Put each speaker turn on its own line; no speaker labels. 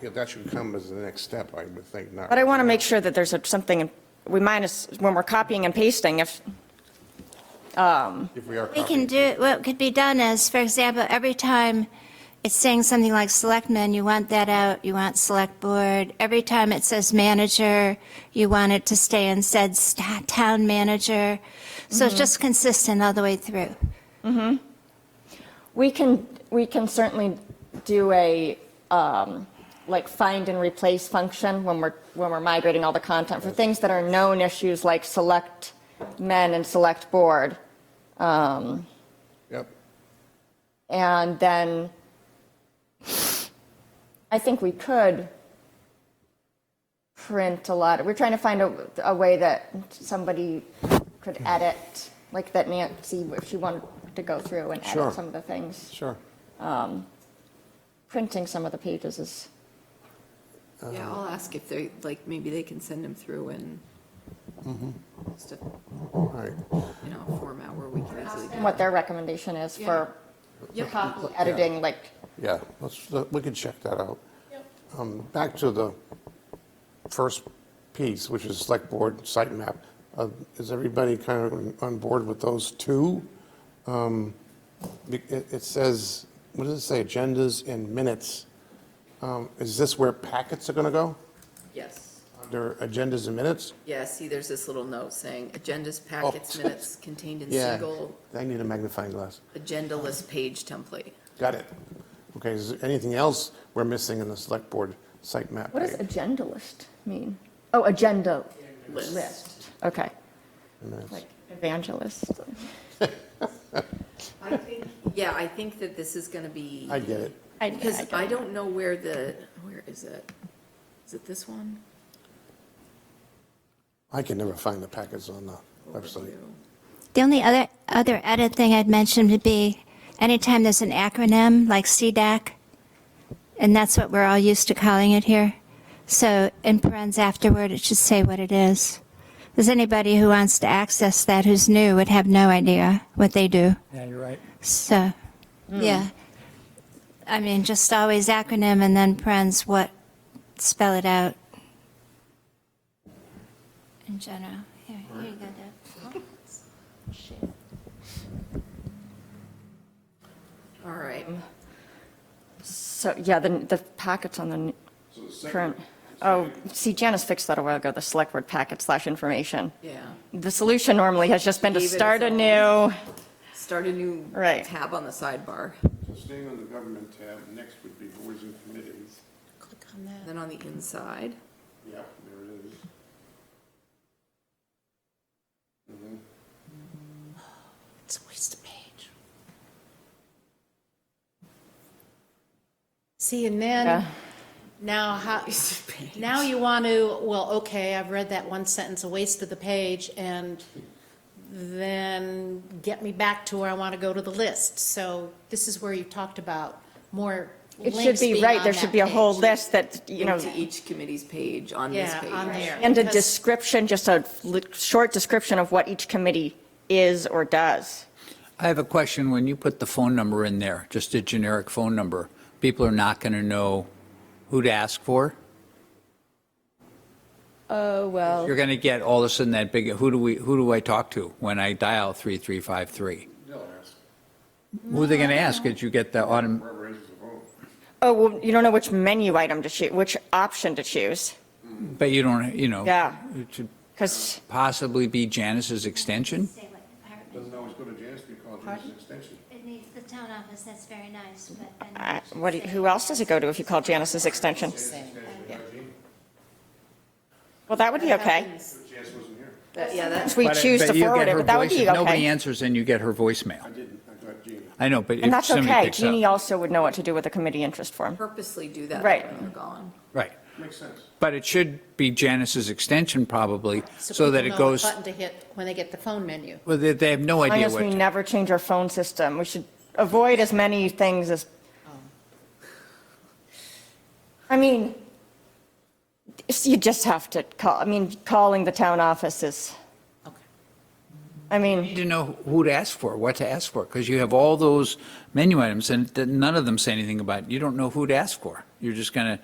Yeah, that should come as the next step, I would think, not.
But I want to make sure that there's a- something, we minus, when we're copying and pasting, if,
If we are
We
copying.
can do, what could be done is, for example, every time it's saying something like selectmen, you want that out, you want select board. Every time it says manager, you want it to stay and said sta- town manager. So it's just consistent all the way through.
we can, we can certainly do a, um, like, find and replace function when we're, when we're migrating all the content for things that are known issues like select men and select board.
Yep.
And then I think we could print a lot. We're trying to find a, a way that somebody could edit, like that Nancy, if she wanted to go through and
Sure.
edit some of the things.
Sure.
Printing some of the pages is,
Yeah,
Um,
I'll ask if they, like, maybe they can send them through in
Mm-hmm.
just a,
All right.
you know, a format where we can easily. do
what their recommendation is for
Yeah.
copy editing, like,
Yeah, let's, we can check that out. Um, Back to the first piece, which is select board site map. Uh, Is everybody kind of on- on board with those two? Um, be- It it says, what does it say, agendas and minutes? Um, Is this where packets are going to go?
Yes.
Under agendas and minutes?
Yeah, see, there's this little note saying agendas, packets, minutes contained in
Oh, Yeah.
single
I need a magnifying glass.
agenda list page template.
Got it. Okay, is there anything else we're missing in the select board site map?
what does
page?
agenda list mean? Oh, agenda
List.
list, okay. Like evangelist.
I think, yeah, I think that this is gonna be.
I get it.
I- I
Because
don't-
I don't know where the, where is it? Is it this one?
I can never find the packets on the website.
Overview.
The only other, other edit thing I'd mentioned would be anytime there's an acronym like CDAC, and that's what we're all used to calling it here. So in parentheses afterward, it should say what it is. Because anybody who wants to access that who's new would have no idea what they do.
Yeah, you're right.
So, yeah. I mean, just always acronym and then parentheses what, spell it out. In general. Here, here you go, Deb.
All right,
So, yeah, the, the packets on the n- current, oh, see, Janice fixed that a while ago, the select word packet slash information.
yeah.
The solution normally has just been to
Leave it as
start
it is.
anew.
Start a new
Right.
tab on the sidebar.
So staying on the government tab, next would be boards and committees.
Click on that.
Then on the inside,
Yep, there it is.
It's always the page.
See, and
Yeah.
then, now how, now you want to, well, okay, I've read that one sentence, a waste of the page, and then get me back to where I want to go to the list. So this is where you talked about more
It
links
should be,
being
right,
on
there
that
should be a whole
page.
list that, you know,
into each committee's page on this
Yeah,
page.
on there.
and a
Because-
description, just a li- short description of what each committee is or does.
I have a question. When you put the phone number in there, just a generic phone number, people are not going to know who to ask for.
Oh, well.
You're going to get all of a sudden that big, who do we, who do I talk to when I dial 3353? Who are they going to ask? Did you get the autumn?
Oh, well, you don't know which menu item to choose, which option to choose,
But you don't, you know.
Yeah.
It should
because,
possibly be Janice's extension?
Say what department.
Doesn't always go to Janice because it's an extension.
It needs the town office, that's very nice, but then.
Uh, what, do you- who else does it go to if you call Janice's extension? Well, that would be okay.
Janice wasn't here.
That- Yeah, that's,
We
But-
choose to
but you
forward
get
it,
her
but that would
voice-
be
If nobody
okay.
answers, then you get her voicemail.
I didn't, I got Jeannie.
I know, but if
And that's
somebody
okay.
picks up-
Jeannie also would know what to do with a committee interest form.
purposely do that
Right.
when they're gone.
Right.
Makes sense.
But it should be Janice's extension probably, so that
people
it
know what
goes,
Button to hit when they get the phone menu.
well, they, they have no
As long
idea
as we
what.
never change our phone system, we should avoid as many things as, I mean, it's- you just have to call, I mean, calling the town office is,
Okay.
I
You
mean,
need to know who to ask for, what to ask for, because you have all those menu items and th- none of them say anything about, you don't know who to ask for. You're just gonna,